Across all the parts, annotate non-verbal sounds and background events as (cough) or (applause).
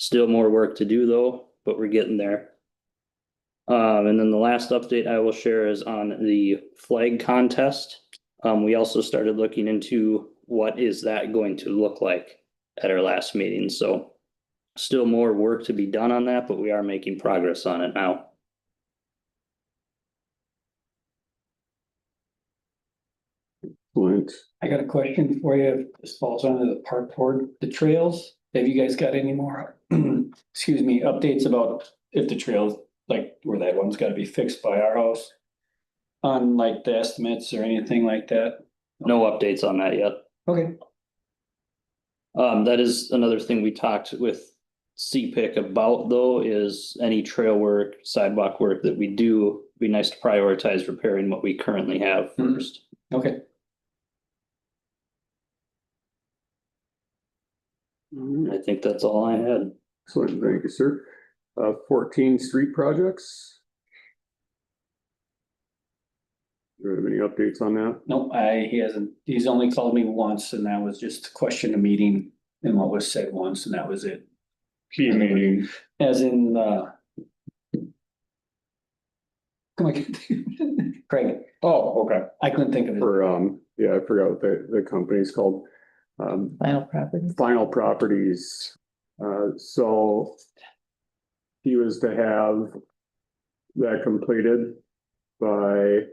Still more work to do though, but we're getting there. Um, and then the last update I will share is on the flag contest. Um, we also started looking into what is that going to look like at our last meeting, so. Still more work to be done on that, but we are making progress on it now. Clint, I got a question for you. This falls under the park board, the trails. Have you guys got any more, (clears throat) excuse me, updates about if the trails, like where that one's gotta be fixed by our house? On like the estimates or anything like that? No updates on that yet. Okay. Um, that is another thing we talked with CPIC about though, is any trail work, sidewalk work that we do, be nice to prioritize repairing what we currently have Mhm. first. Okay, I think that's all I had. excellent, thank you, sir. Uh, fourteen street projects. Do you have any updates on that? no, I, he hasn't, he's only called me once and that was just to question a meeting and what was said once and that was it. Key meeting. As in, uh. (laughs) Come on, (laughs) Craig, Oh, okay. I couldn't think of it. For, um, yeah, I forgot what the, the company's called. Um, Final property. Final Properties. Uh, so he was to have that completed by,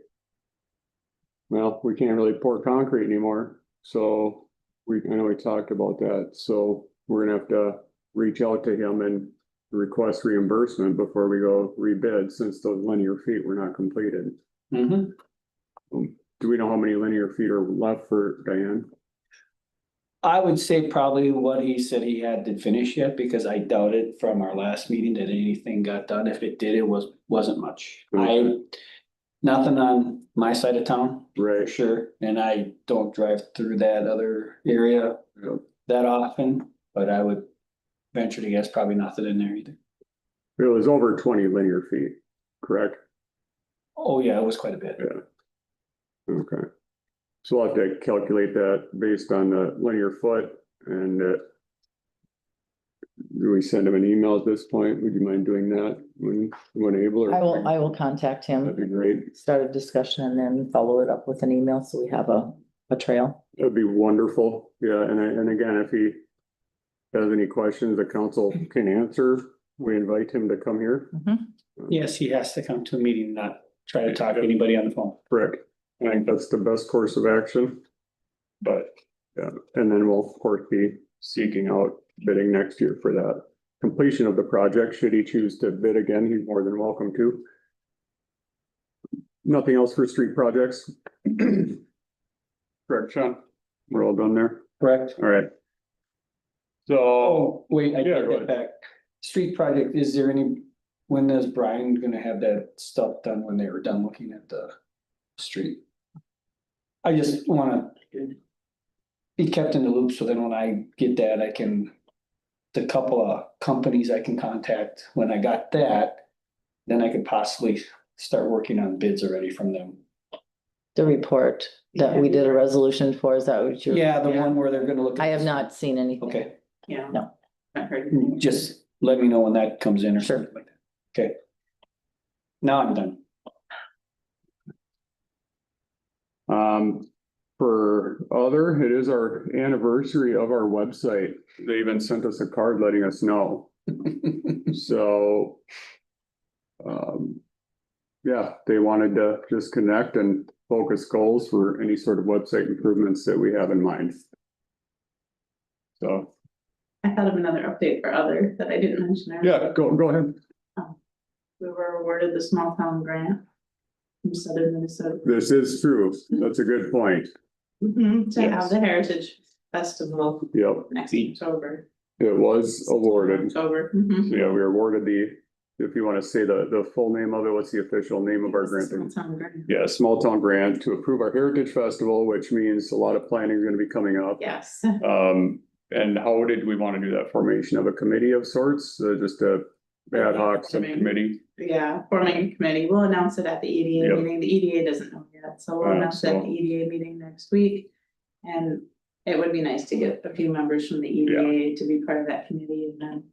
well, we can't really pour concrete anymore. So we, I know we talked about that. So we're gonna have to reach out to him and request reimbursement before we go rebid since those linear feet were not completed. Mm-hmm. Do we know how many linear feet are left for Diane? I would say probably what he said he had to finish yet, because I doubted from our last meeting that anything got done. If it did, it was, wasn't much. I, Okay. nothing on my side of town, for Right. sure, and I don't drive through that other area Yep. that often, but I would venture to guess probably nothing in there either. It was over twenty linear feet, correct? Oh, yeah, it was quite a bit. Okay. So I'll have to calculate that based on the linear foot and uh. Do we send him an email at this point? Would you mind doing that when, when able or? I will, I will contact That'd be him, great. start a discussion and then follow it up with an email, so we have a, a trail. That'd be wonderful. Yeah, and I, and again, if he. Has any questions the council can answer, we invite him to come here. Yes, he has to come to a meeting, not try to talk to anybody on the phone. Correct. I think that's the best course of action. But, yeah, and then we'll of course be seeking out bidding next year for that. Completion of the project, should he choose to bid again, he's more than welcome to. Nothing else for street projects? Correct, Sean? We're all done there? Correct. All right. So, Oh, wait, I Yeah, take go that ahead. back. Street project, is there any, when is Brian gonna have that stuff done when they were done looking at the street? I just wanna be kept in the loop, so then when I get that, I can, the couple of companies I can contact, when I got that, then I could possibly start working on bids already from them. The report that we did a resolution for, is that what you? Yeah, the one where they're gonna look. at- I have not seen anything. Okay, Yeah. No. Not heard anything. just let me know when that comes in or Sure. something like that. Okay. Now I'm done. um, for other, it is our anniversary of our website. They even sent us a card letting us know. So. Um. Yeah, they wanted to just connect and focus goals for any sort of website improvements that we have in mind. So, I thought of another update for other that I didn't mention. earlier. yeah, go, go ahead. We were awarded the small town grant from southern Minnesota. This is true. That's a good point. Mm-hmm. To have the Heritage Festival Yep, next October. it was awarded. Mm-hmm. October. mhm. Yeah, we were awarded the, if you want to say the, the full name of it, what's the official name of our grant? Small town grant. Yeah, small town grant to approve our heritage festival, which means a lot of planning is going to be coming up. Yes, Um, and how did we want to do that? Formation of a committee of sorts, uh, just a ad hoc subcommittee? yeah, forming a committee. We'll announce it at the EDA Yep. meeting. The EDA doesn't know yet, so we'll Uh, announce it at so- the EDA meeting next week. E And it would be nice to get a few members from the EDA to be part of that committee and then